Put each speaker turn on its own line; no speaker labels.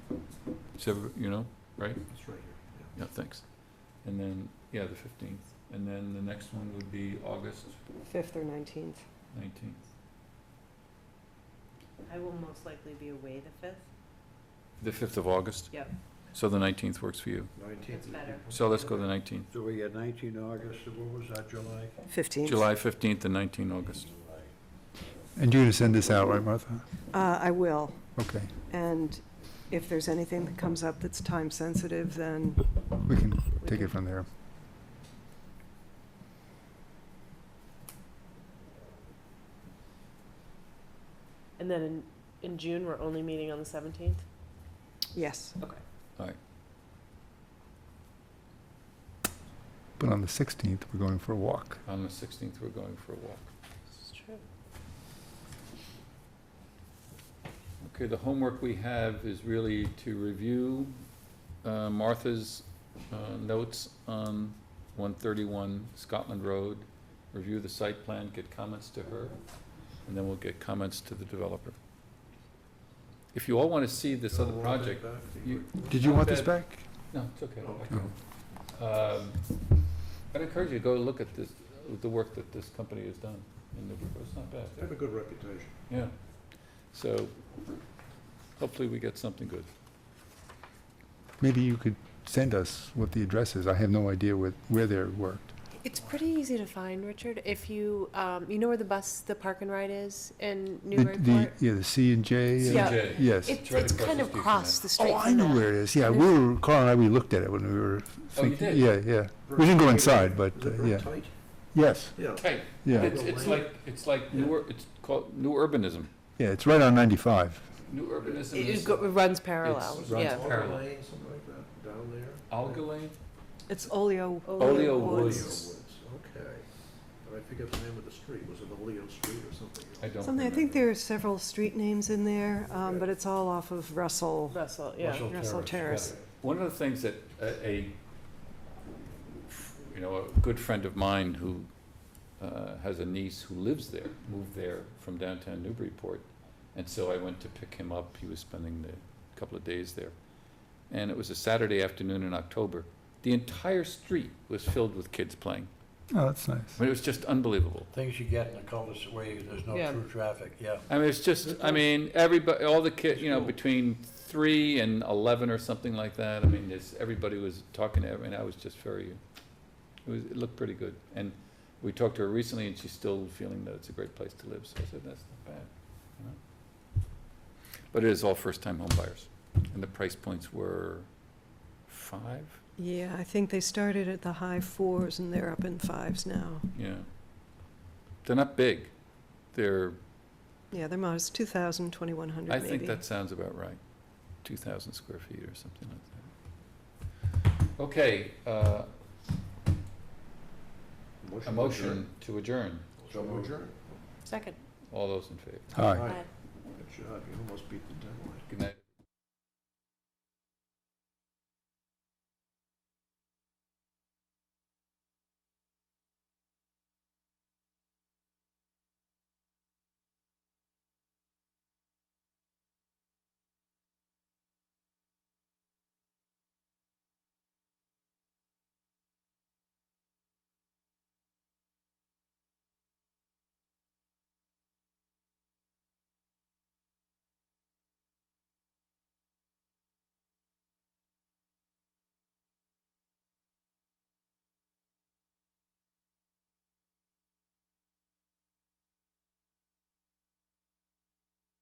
Is every- you know, right?
It's right here.
Yeah, thanks. And then, yeah, the fifteenth. And then the next one would be August
Fifth or nineteenth.
nineteenth.
I will most likely be away the fifth.
The fifth of August?
Yep.
So the nineteenth works for you.
Nineteenth.
That's better.
So let's go the nineteenth.
So we got nineteen August, so what was that, July?
Fifteenth.
July fifteenth and nineteen August.
And you're going to send this out, right, Martha?
Uh, I will.
Okay,
And if there's anything that comes up that's time sensitive, then
we can take it from there.
And then in, in June, we're only meeting on the seventeenth?
yes.
Okay.
But on the 16th, we're going for a walk.
On the sixteenth, we're going for a walk.
This is true.
Okay, the homework we have is really to review uh, Martha's uh, notes on 131 Scotland Road, review the site plan, get comments to her, and then we'll get comments to the developer. If you all want to see this other project, you-
Did you want this back?
no, it's okay.
Oh,
Um, I'd encourage you to go look at this, the work that this company has done, and it's not bad.
They have a good reputation.
Yeah, so hopefully we get something good.
Maybe you could send us what the address is. I have no idea where, where they're worked.
It's pretty easy to find, Richard, if you, um, you know where the bus, the park and ride is in
The-
Newburyport?
the- Yeah, the C and J. and-
Yeah.
CJ.
Yes.
It's,
right
it's
across
kind
the
of
street from
across
that.
the street.
Oh, I
from
know
that.
where it is. Yeah, we were, Carl and I, we looked at it when we were
Oh, you
thinking.
did?
Yeah, yeah. We didn't go inside, but,
Is
uh,
it real
yeah.
tight?
Yes,
Yeah.
Hey,
yeah.
it's, it's like, it's like new, ur- it's called new urbanism.
Yeah, it's right on 95.
New urbanism
It- It
is
go- it runs parallel,
runs
yeah.
parallel.
Walker Lane, something like that, down there?
Alga Lane?
It's Olio.
Olio
Oleo
Woods.
Woods, okay. But I forget the name of the street, was it Oleo Street or something else?
I don't
Something, I think there are several street names in there, um, but it's all off of Russell,
Russell, yeah.
Russell
Russell Terrace.
One of the things that a, a, you know, a good friend of mine who uh, has a niece who lives there, moved there from downtown Newburyport. And so I went to pick him up. He was spending a couple of days there. And it was a Saturday afternoon in October. The entire street was filled with kids playing.
Oh, that's nice.
I mean, it was just unbelievable.
Things you get in a cul-de-sac where you- there's no
Yeah.
true traffic, yeah.
I mean, it's just, I mean, everybody, all the kids, you know, between three and eleven or something like that, I mean, there's, everybody was talking to everyone, I was just very, it was, it looked pretty good. And we talked to her recently, and she's still feeling that it's a great place to live, so I said, that's not bad, you know? But it is all first-time home buyers, and the price points were five,
Yeah, I think they started at the high fours and they're up in fives now.
yeah. They're not big, they're,
Yeah, they're modest, 2,000, 2,100
I
maybe.
think that sounds about right, two thousand square feet or something like that. Okay, uh, a motion to adjourn,
So moved. Adjourn.
Second.
all those in favor,
Hi.
Aye.
Aye.
Good job, you almost beat the deadline.
good night.